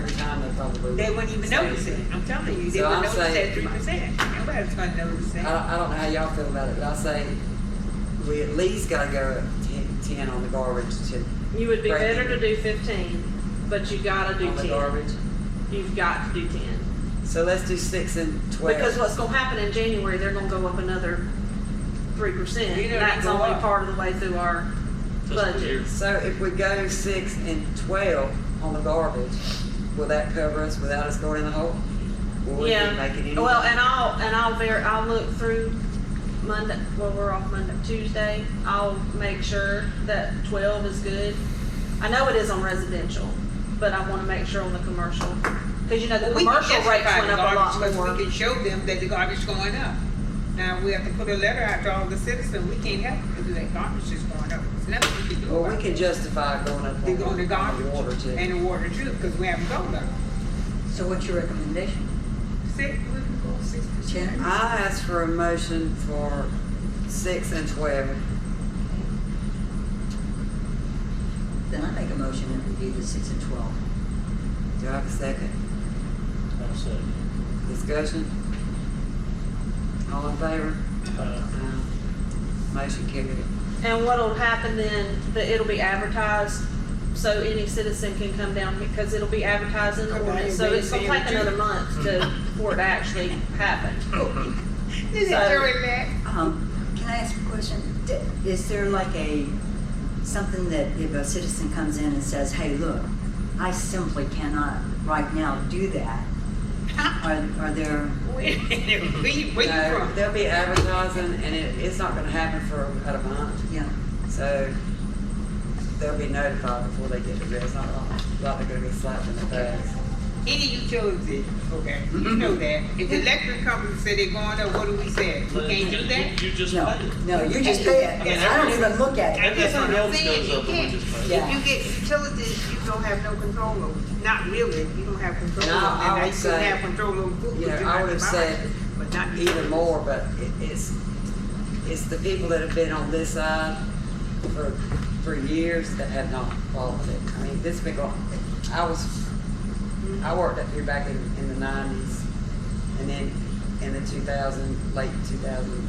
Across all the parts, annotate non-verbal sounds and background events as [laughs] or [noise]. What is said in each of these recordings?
time they probably. They wouldn't even notice it. I'm telling you, they So wouldn't I'm notice that saying- Uh, three percent. Nobody's gonna notice I don't, that. I don't know how y'all feel about it, but I say we at least gotta go ten, ten on the garbage to. You would be break better to even do fifteen, but you gotta do On the ten. garbage. You've got to do ten. So let's do six and twelve. Because what's gonna happen in January, they're gonna go up another three percent. You know, they That's go only up. part of the way through our budget. So if we go six and twelve on the garbage, will that cover us without us going in the hole? Will we be making Yeah, any? well, and I'll, and I'll ver, I'll look through Monday, well, we're off Monday, Tuesday. I'll make sure that twelve is good. I know it is on residential, but I wanna make sure on the commercial, cause you know, the We can commercial rates justify went the up a lot garbage more. 'cause We can show them that the garbage going up. Now, we have to put a letter out to all the citizens. We can't help it because that garbage is going up. There's nothing we can do Well, we about it. can justify going up on They go in the the on the water garbage too. and the water too, because we haven't gone up. So what's your recommendation? Six, we can go six percent. Ten? I ask for a motion for six and twelve. Then I make a motion that we do the six and twelve. Do I have a second? I'll say, Discussion? All in favor? uh, Aye. Motion carried. And what'll happen then, that it'll be advertised, so any citizen can come down, because it'll be advertised in the Okay, ordinance, so they it's gonna say take it too. another month to, for it to actually happen. Oh, Is it So- doing that? Um, can I ask a question? D- Is there like a, something that if a citizen comes in and says, hey, look, I simply cannot right now do that? Are, are there, [laughs] Where, where you where you No, from? they'll be advertising and it, it's not gonna happen for about a month, yeah, so they'll be notified before they get to jail. It's not like, like they're gonna be slapped in the face. Any utility, okay, Mm-hmm. you know that. If the electric company say they going up, what do we say? We can't do that? You just no, pay it. no, you just pay it, And I don't even look at it. And if That's what something I'm else saying, goes up, you we can't. just pay it. Yeah. If you get utilities, you don't have no control over, it. not really, you don't have control No, over. it. I Now, would you say- don't have control over who you know, could do I it would have about said it, But not Either utilities. more, but it, it's, it's the people that have been on this side for, for years that have not followed it. I mean, this been going, I was, I worked up here back in, in the nineties and then in the two thousand, late two thousand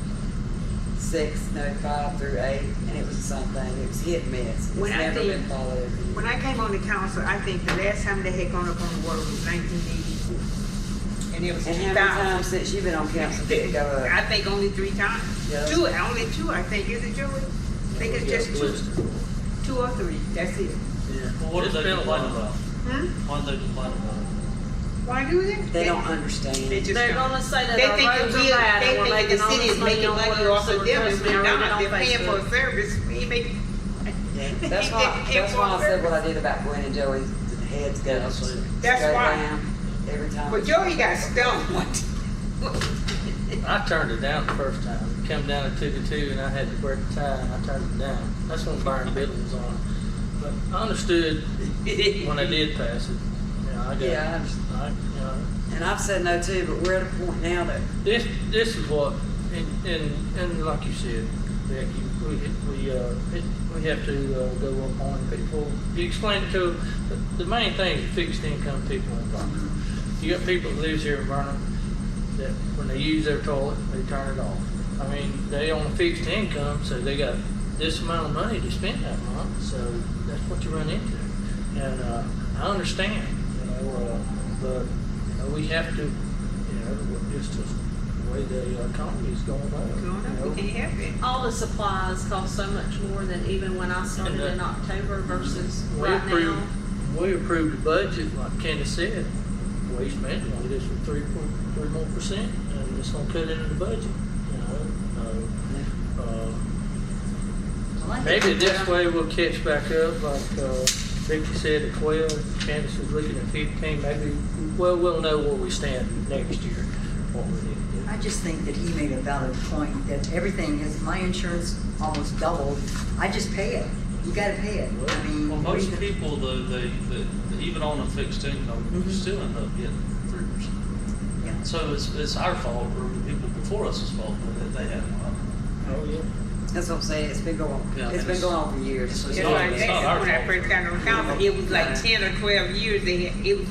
six, no, five through eight, and it was something, it was hit and miss. It's When I never think- been followed. When I came on the council, I think the last time they had gone up on the water was nineteen eighty-four. And it was And two how many thousand. times since you've been on council did it go I [laughs] up? think only three times. Yeah. Two, only two, I think, is it Joey? I think it's Yeah, just blizzard. two, two or three, that's it. Well, what do they complain about? Hmm? Why do they complain about it? Why do they? They don't understand. They just They're don't. gonna say that They our think roads that are we, bad they and we're think that the making all city this is money making on money water, off so of them, and trust me, I we're not, they're read it on paying for a Facebook. service, we ain't making. Yeah, [laughs] That's why, that's why I said what I did about Gwen and Joey's heads go, Yeah, I see. That's go why. down every time. But Joey got [laughs] stoned one I turned it down the first time. Come down at two to two, and I had to break the tie, and I turned it down. That's when Byron Biddle was on. But I [laughs] understood when I did pass it. Yeah, I got it. Yeah, I understand. I, you know, And I've said no too, but we're at a point now that this this is what, and and, and like you said, Becky, we we uh, it, we have to uh, go up on people. You explain to the, the main thing is fixed income people in Vernon. You got people that lives here in Vernon that when they use their toilet, they turn it off. I mean, they on a fixed income, so they got this amount of money to spend that month. So that's what you run into, and uh, I understand, you know, uh, but you know, we have to you know, with just the way the economy is going on. you know. we can't have it. All the supplies cost so much more than even when I started that- in October versus uh, We right approved- now. We approved the budget, like Candace said, waste management, we just for three, four- three more percent, and it's gonna cut into the budget, you know? Uh, uh, Well, I think Maybe we this have- way we'll catch back up, like, uh, Vicky said at twelve, Candace was looking at fifteen, maybe, well, we'll know where we stand next year, what we need to do. I just think that he made a valid point, that everything is, my insurance almost doubled, I just pay it, you gotta pay it, I mean. Well, what are you most gonna- people, though, they, they, even on a fixed income, Mhm. still end up getting three percent. Yeah. So it's, it's our fault, or the people before us's fault, that they have one. Oh, yeah. that's what I'm saying. It's been going. Yeah, it's and been it's- going on for years. it's- Just not- like it's not that, our when I fault. first got on council, it was like ten or twelve years, they, had- it was like